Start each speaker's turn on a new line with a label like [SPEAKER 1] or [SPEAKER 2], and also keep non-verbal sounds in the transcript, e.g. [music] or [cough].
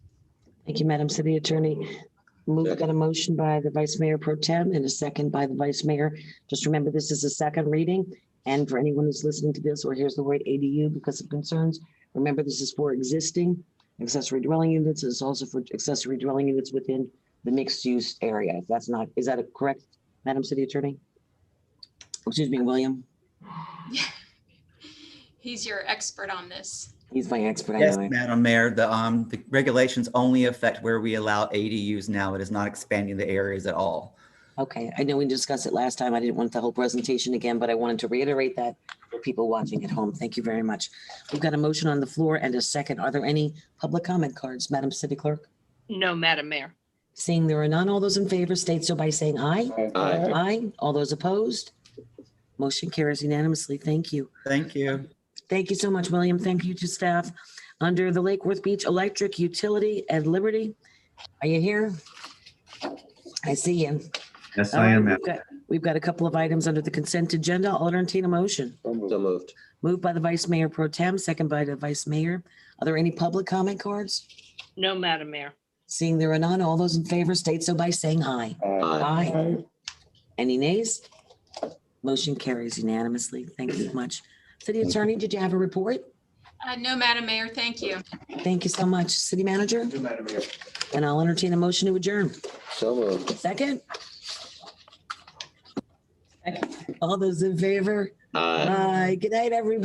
[SPEAKER 1] Thank you, Madam City Attorney. Move, got a motion by the Vice Mayor Pro Tem and a second by the Vice Mayor. Just remember, this is a second reading. And for anyone who's listening to this or hears the word ADU because of concerns, remember, this is for existing accessory dwelling units. It's also for accessory dwelling units within the mixed-use area. If that's not, is that a correct, Madam City Attorney? Excuse me, William.
[SPEAKER 2] [laughs] He's your expert on this.
[SPEAKER 1] He's my expert. I
[SPEAKER 3] Yes,
[SPEAKER 1] know.
[SPEAKER 3] Madam Mayor, the, um, the regulations only affect where we allow ADUs now. It is not expanding the areas at all.
[SPEAKER 1] Okay, I know we discussed it last time. I didn't want the whole presentation again, but I wanted to reiterate that for people watching at home. Thank you very much. We've got a motion on the floor and a second. Are there any public comment cards, Madam City Clerk?
[SPEAKER 4] No, Madam Mayor.
[SPEAKER 1] Seeing there are none, all those in favor state so by saying aye.
[SPEAKER 5] Aye.
[SPEAKER 1] Aye. All those opposed? Motion carries unanimously. Thank you.
[SPEAKER 3] Thank you.
[SPEAKER 1] Thank you so much, William. Thank you to staff. Under the Lake Worth Beach Electric Utility and Liberty, are you here? I see you.
[SPEAKER 6] Yes,
[SPEAKER 1] All
[SPEAKER 6] I
[SPEAKER 1] right,
[SPEAKER 6] am.
[SPEAKER 1] We've got, we've got a couple of items under the consent agenda. I'll entertain a motion.
[SPEAKER 5] So moved.
[SPEAKER 1] Moved by the Vice Mayor Pro Tem, second by the Vice Mayor. Are there any public comment cards?
[SPEAKER 4] No, Madam Mayor.
[SPEAKER 1] Seeing there are none, all those in favor state so by saying aye.
[SPEAKER 5] Aye.
[SPEAKER 1] Aye. Any nays? Motion carries unanimously. Thank you much. City Attorney, did you have a report?
[SPEAKER 2] Uh, no, Madam Mayor, thank you.
[SPEAKER 1] Thank you so much. City Manager? And I'll entertain a motion to adjourn.
[SPEAKER 5] So moved.
[SPEAKER 1] Second? All those in favor?
[SPEAKER 5] Aye. Uh,
[SPEAKER 1] Aye. Good night, everybody.